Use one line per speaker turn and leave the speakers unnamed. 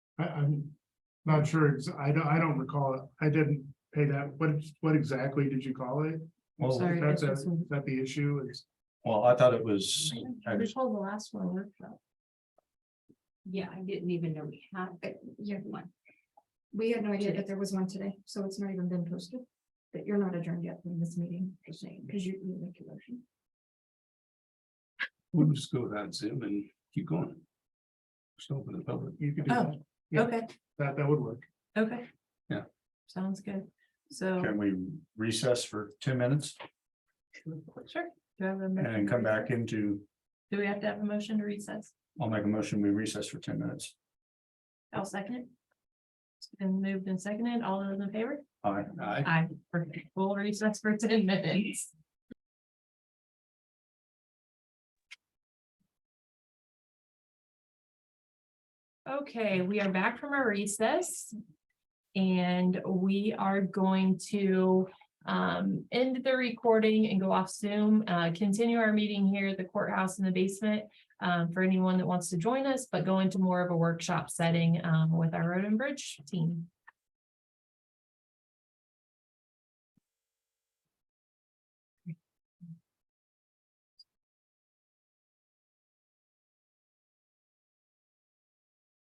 I, I'm not sure, ex- I don't, I don't recall, it. I didn't pay that, what, what exactly did you call it?
Well-
Is
Sorry,
that the-
that's-
is that the issue is,
Well, I thought it was, I
We
just-
told the last one workshop. Yeah, I didn't even know we had, but you have one.
We had no idea
Today.
that there was one today, so it's not even been posted. But you're not adjourned yet from this meeting, just saying, because you didn't make a motion.
we'll just go without Zoom and keep going. Just open the public.
you could do
Oh.
that, Yeah.
Okay,
that, that would work.
okay.
Yeah.
Sounds good. So,
Can we recess for ten minutes
sure. Do I have a
and
motion
then
to
come back
recess?
into,
Do we have to have a motion to recess?
I'll make a motion, we recess for ten minutes.
I'll second it. It's been moved and seconded. All those in favor?
Aye. Aye.
Aye. Perfect. We'll recess for ten minutes. Okay, we are back from our recess. And we are going to um end the recording and go off Zoom, uh continue our meeting here at the courthouse in the basement. um, for anyone that wants to join us, but go into more of a workshop setting um with our road and bridge team.